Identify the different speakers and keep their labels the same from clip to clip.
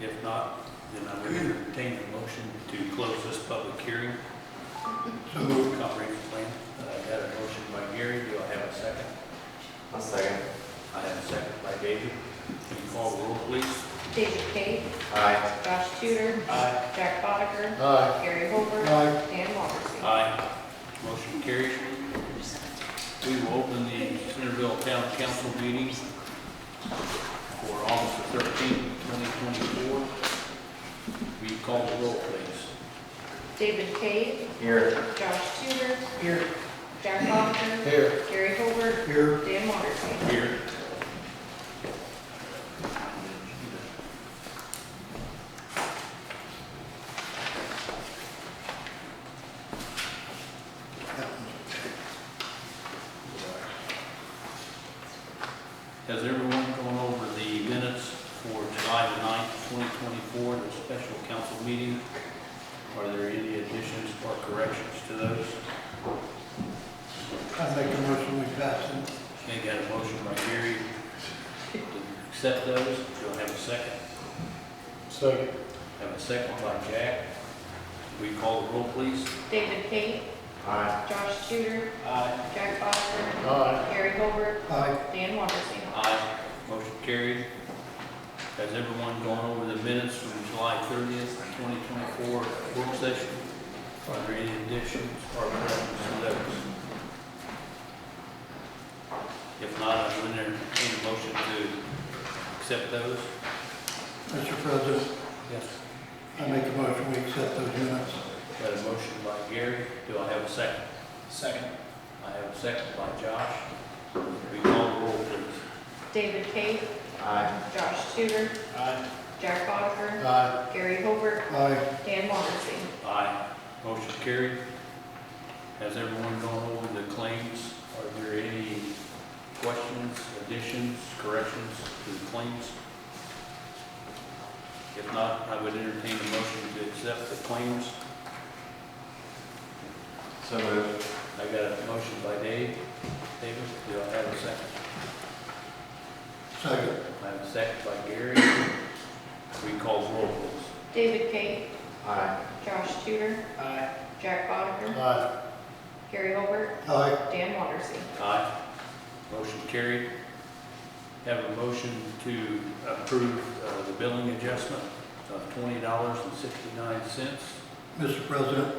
Speaker 1: If not, then I would entertain a motion to close this public hearing. So moved. Comprehensive plan. I got a motion by Gary. Do I have a second?
Speaker 2: I'll second.
Speaker 1: I have a second by David. Can you call the roll, please?
Speaker 3: David Cate,
Speaker 2: Aye.
Speaker 3: Josh Tudor,
Speaker 1: Aye.
Speaker 3: Jack Botter,
Speaker 4: Aye.
Speaker 3: Gary Holbert,
Speaker 4: Aye.
Speaker 3: Dan Wondersen.
Speaker 1: Aye. Motion carries. We will open the Centerville Town Council meeting for August thirteenth, twenty twenty-four. Will you call the roll, please?
Speaker 3: David Cate,
Speaker 2: Here.
Speaker 3: Josh Tudor,
Speaker 4: Here.
Speaker 3: Jack Botter,
Speaker 4: Here.
Speaker 3: Gary Holbert,
Speaker 4: Here.
Speaker 3: Dan Wondersen.
Speaker 1: Here. Has everyone gone over the minutes for July the ninth, twenty twenty-four, the special council meeting? Are there any additions or corrections to those?
Speaker 4: I make a motion we pass them.
Speaker 1: Okay, got a motion by Gary to accept those. Do I have a second?
Speaker 4: Second.
Speaker 1: Have a second by Jack. We call the roll, please?
Speaker 3: David Cate,
Speaker 2: Aye.
Speaker 3: Josh Tudor,
Speaker 1: Aye.
Speaker 3: Jack Botter,
Speaker 4: Aye.
Speaker 3: Gary Holbert,
Speaker 4: Aye.
Speaker 3: Dan Wondersen.
Speaker 1: Aye. Motion carried. Has everyone gone over the minutes from July thirtieth, twenty twenty-four work session? Are there any additions or corrections to those? If not, I would entertain a motion to accept those.
Speaker 4: Mr. President,
Speaker 1: Yes.
Speaker 4: I make a motion we accept those minutes.
Speaker 1: Got a motion by Gary. Do I have a second?
Speaker 4: Second.
Speaker 1: I have a second by Josh. We call the roll, please.
Speaker 3: David Cate,
Speaker 2: Aye.
Speaker 3: Josh Tudor,
Speaker 1: Aye.
Speaker 3: Jack Botter,
Speaker 4: Aye.
Speaker 3: Gary Holbert,
Speaker 4: Aye.
Speaker 3: Dan Wondersen.
Speaker 1: Aye. Motion carried. Has everyone gone over the claims? Are there any questions, additions, corrections to the claims? If not, I would entertain a motion to accept the claims.
Speaker 2: So moved.
Speaker 1: I got a motion by Dave. David, do I have a second?
Speaker 4: Second.
Speaker 1: I have a second by Gary. We call the roll, please.
Speaker 3: David Cate,
Speaker 2: Aye.
Speaker 3: Josh Tudor,
Speaker 4: Aye.
Speaker 3: Jack Botter,
Speaker 4: Aye.
Speaker 3: Gary Holbert,
Speaker 4: Aye.
Speaker 3: Dan Wondersen.
Speaker 1: Aye. Motion carried. Have a motion to approve uh, the billing adjustment of twenty dollars and sixty-nine cents.
Speaker 4: Mr. President,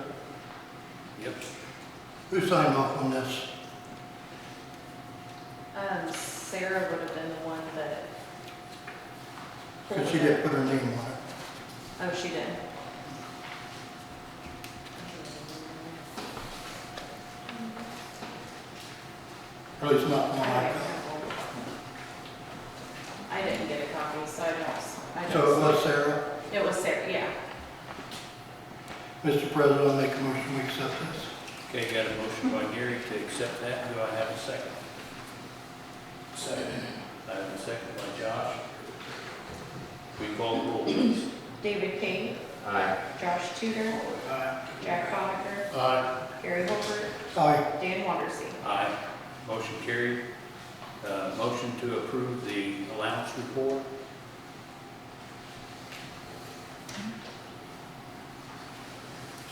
Speaker 1: Yep.
Speaker 4: who signed off on this?
Speaker 3: Um, Sarah would have been the one that.
Speaker 4: Because she didn't put her name on it.
Speaker 3: Oh, she did.
Speaker 4: At least not one I got.
Speaker 3: I didn't get a copy, so I don't, I
Speaker 4: So it
Speaker 3: don't.
Speaker 4: was Sarah.
Speaker 3: It was Sarah, yeah.
Speaker 4: Mr. President, I make a motion we accept this.
Speaker 1: Okay, got a motion by Gary to accept that. Do I have a second? Second. I have a second by Josh. We call the roll, please.
Speaker 3: David King,
Speaker 2: Aye.
Speaker 3: Josh Tudor, Jack Bonneker,
Speaker 4: Aye.
Speaker 3: Gary Holbert,
Speaker 4: Aye.
Speaker 3: Dan Wondersen.
Speaker 1: Aye. Motion carried. Uh, Motion to approve the allowance report.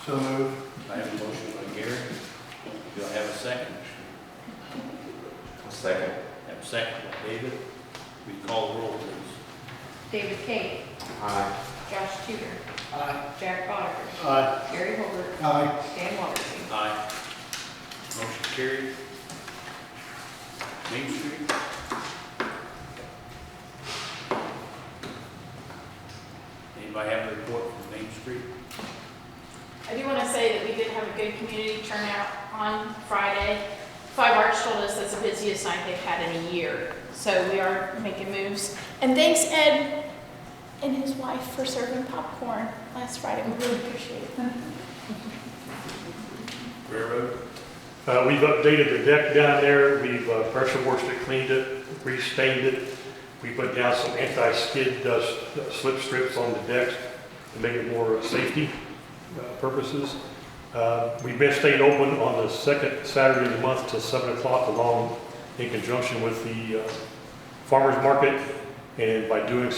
Speaker 4: So moved.
Speaker 1: I have a motion by Gary. Do I have a second?
Speaker 2: I'll second.
Speaker 1: Have a second by David. We call the roll, please.
Speaker 3: David King,
Speaker 2: Aye.
Speaker 3: Josh Tudor,
Speaker 4: Aye.
Speaker 3: Jack Bonneker,
Speaker 4: Aye.
Speaker 3: Gary Holbert,
Speaker 4: Aye.
Speaker 3: Dan Wondersen.
Speaker 1: Aye. Motion carried. Main Street? Anybody have a report from Main Street?
Speaker 5: I do want to say that we did have a good community turnout on Friday. Five Arch told us that's the busiest night they've had in a year, so we are making moves. And thanks Ed and his wife for serving popcorn last Friday, we really appreciate it.
Speaker 1: Railroad?
Speaker 6: Uh, we've updated the deck down there, we've uh, pressure washed it, cleaned it, restained it. We put down some anti-skid uh, s- uh, slip strips on the decks to make it more safety uh, purposes. Uh, We've been staying open on the second Saturday of the month till seven o'clock along in conjunction with the uh, farmer's market. And by doing